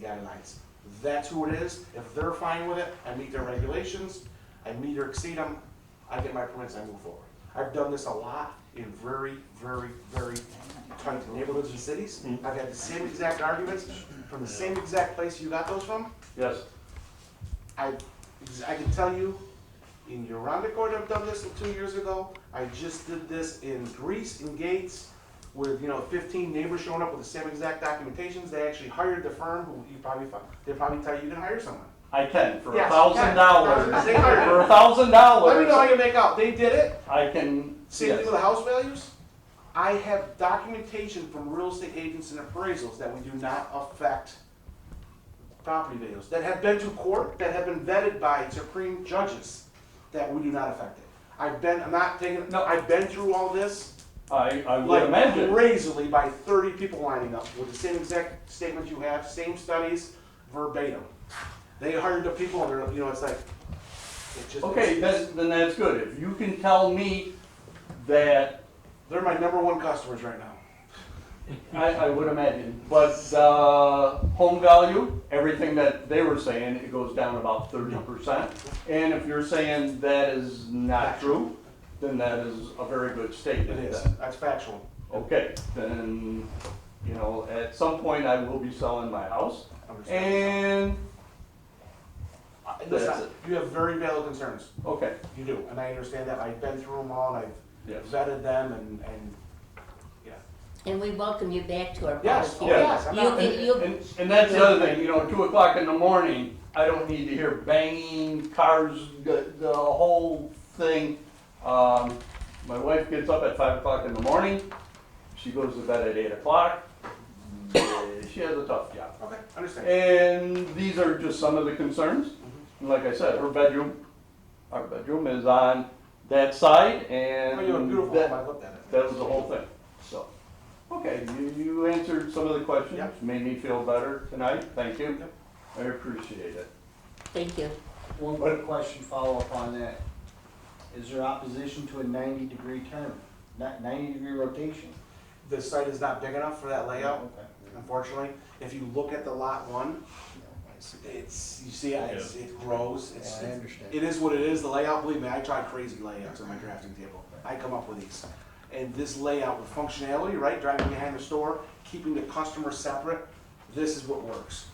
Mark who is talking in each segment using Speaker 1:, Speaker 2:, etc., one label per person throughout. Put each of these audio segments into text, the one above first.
Speaker 1: guidelines. That's who it is. If they're fine with it, I meet their regulations, I meet or exceed them, I get my permits, I move forward. I've done this a lot in very, very, very tight neighborhoods and cities. I've had the same exact arguments from the same exact place you got those from.
Speaker 2: Yes,
Speaker 1: I, I can tell you, in Uranda Court, I've done this two years ago. I just did this in Greece, in Gates, with, you know, fifteen neighbors showing up with the same exact documentations. They actually hired the firm, who you probably, fi- they probably tell you you can hire someone.
Speaker 2: I can, for a
Speaker 1: Yes,
Speaker 2: thousand dollars,
Speaker 1: They hired.
Speaker 2: for a thousand
Speaker 1: Let me know how
Speaker 2: dollars,
Speaker 1: you make out. They did it.
Speaker 2: I can,
Speaker 1: Same thing
Speaker 2: yes,
Speaker 1: with the house values. I have documentation from real estate agents and appraisals that we do not affect property values, that have been to court, that have been vetted by supreme judges, that we do not affect it. I've been, I'm not taking, no, I've been through all this,
Speaker 2: I, I would
Speaker 1: like
Speaker 2: imagine,
Speaker 1: crazily by thirty people lining up with the same exact statements you have, same studies, verbatim. They hired the people, and they're, you know, it's like, it just.
Speaker 2: okay, then, then that's good, if you can tell me that,
Speaker 1: They're my number one customers right now.
Speaker 2: I, I would imagine, but, uh, home value, everything that they were saying, it goes down about thirty percent, and if you're saying that is not true, then that is a very good
Speaker 1: It
Speaker 2: statement
Speaker 1: is,
Speaker 2: then.
Speaker 1: that's factual.
Speaker 2: Okay, then, you know, at some point I will be selling my house,
Speaker 1: Understand.
Speaker 2: and,
Speaker 1: Uh,
Speaker 2: That's
Speaker 1: listen,
Speaker 2: it.
Speaker 1: you have very valid concerns.
Speaker 2: okay,
Speaker 1: You do, and I understand that. I've been through them all, and
Speaker 2: yes.
Speaker 1: I've vetted them, and, and, yeah.
Speaker 3: And we welcome you back to our public
Speaker 1: Yes, oh,
Speaker 3: hearing.
Speaker 1: yes, I'm
Speaker 3: You
Speaker 1: not,
Speaker 3: can-
Speaker 2: And, and- and that's the other thing, you know, two o'clock in the morning, I don't need to hear banging, cars, the, the whole thing. Um, my wife gets up at five o'clock in the morning, she goes to bed at eight o'clock, Eh, she has a tough job.
Speaker 1: okay, understand.
Speaker 2: And these are just some of the concerns. And like I said, her bedroom, our bedroom is on that side and
Speaker 1: Oh, you have a beautiful home,
Speaker 2: that,
Speaker 1: I looked at it.
Speaker 2: that was the whole thing, so. Okay, you, you answered some of the questions,
Speaker 1: Yep.
Speaker 2: made me feel better tonight, thank you.
Speaker 1: Yep.
Speaker 2: I appreciate it.
Speaker 3: Thank you.
Speaker 4: One quick question, follow up on that. Is there opposition to a ninety degree turn, not ninety degree rotation?
Speaker 1: The site is not big enough for that layout,
Speaker 4: Okay.
Speaker 1: unfortunately. If you look at the lot one, it's, you see, it's, it grows, it's,
Speaker 4: Yeah, I
Speaker 1: it's-
Speaker 4: understand.
Speaker 1: it is what it is, the layout, believe me, I tried crazy layouts on my drafting table. I come up with these. And this layout with functionality, right, driving behind the store, keeping the customer separate, this is what works.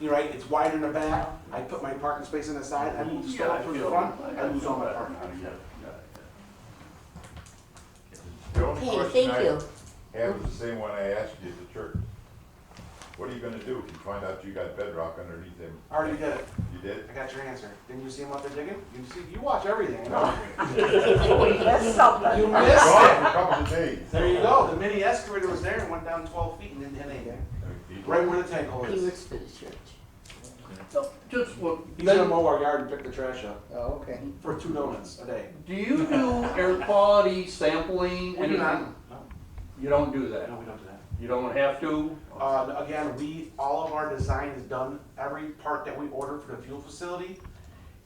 Speaker 1: You're right, it's wider in the back, I put my parking space in the side, I move the
Speaker 2: Yeah,
Speaker 1: store
Speaker 2: I
Speaker 1: through the
Speaker 2: feel-
Speaker 1: front,
Speaker 2: I-
Speaker 1: I
Speaker 2: I
Speaker 1: lose
Speaker 2: feel
Speaker 1: all my
Speaker 2: better.
Speaker 1: parking.
Speaker 2: Yeah, yeah,
Speaker 5: The only
Speaker 3: Okay,
Speaker 5: question
Speaker 3: thank
Speaker 5: I
Speaker 3: you.
Speaker 5: have is the same one I asked you at the church. What are you gonna do if you find out you got bedrock underneath them?
Speaker 1: I Already did it,
Speaker 5: You did?
Speaker 1: I got your answer. Didn't you see him out there digging? You see, you watch everything, I know. You missed it.
Speaker 5: Gone for a couple of days.
Speaker 1: There you go, the mini excavator was there and went down twelve feet and then hit anything. Right where the tank hole
Speaker 3: He
Speaker 1: is.
Speaker 3: works for the church.
Speaker 2: So, Just one,
Speaker 1: He's gonna mow our yard and pick the trash up
Speaker 4: Oh, okay.
Speaker 1: for two donuts a day.
Speaker 2: do you do air quality sampling?
Speaker 1: We do not,
Speaker 2: anything? You don't do that?
Speaker 1: uh, no, we don't do that.
Speaker 2: You don't have to?
Speaker 1: Uh, again, we, all of our design is done, every part that we order for the fuel facility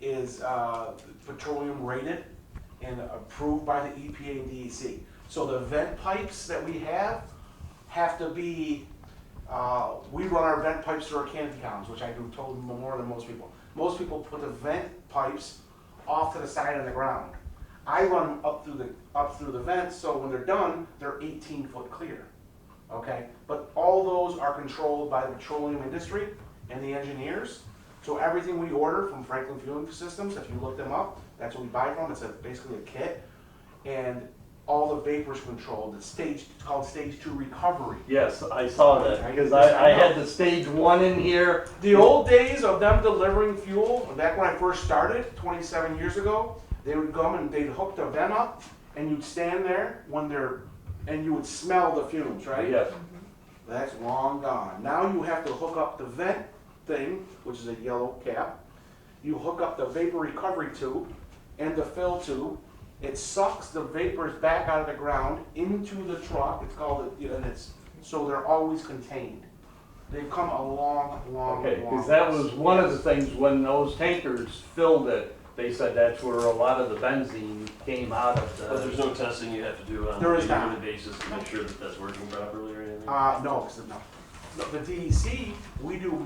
Speaker 1: is, uh, petroleum rated and approved by the EPA and DEC. So the vent pipes that we have have to be, uh, we run our vent pipes through our canopy columns, which I do told more than most people. Most people put the vent pipes off to the side of the ground. I run them up through the, up through the vents, so when they're done, they're eighteen foot clear. Okay, but all those are controlled by the petroleum industry and the engineers. So everything we order from Franklin Fueling Systems, if you look them up, that's what we buy from, it's a, basically a kit. And all the vapors controlled, it's stage, it's called stage two recovery.
Speaker 2: Yes, I saw that, because I, I had the stage one in here.
Speaker 1: The old days of them delivering fuel, back when I first started, twenty-seven years ago, they would come and they'd hook the vent up and you'd stand there when they're, and you would smell the fumes, right?
Speaker 2: Yes,
Speaker 1: That's long gone. Now you have to hook up the vent thing, which is a yellow cap. You hook up the vapor recovery tube and the fill tube. It sucks the vapors back out of the ground into the truck. It's called, a- and it's, so they're always contained. They've come a long, long, long.
Speaker 2: okay, because that was one of the things, when those tankers filled it, they said that's where a lot of the benzene came out of
Speaker 6: But there's
Speaker 2: the.
Speaker 6: no testing you have to do on
Speaker 1: There
Speaker 6: a
Speaker 1: is not.
Speaker 6: yearly basis to make sure that that's working properly or anything?
Speaker 1: Uh, no, 'cause the- no. The DEC, E we do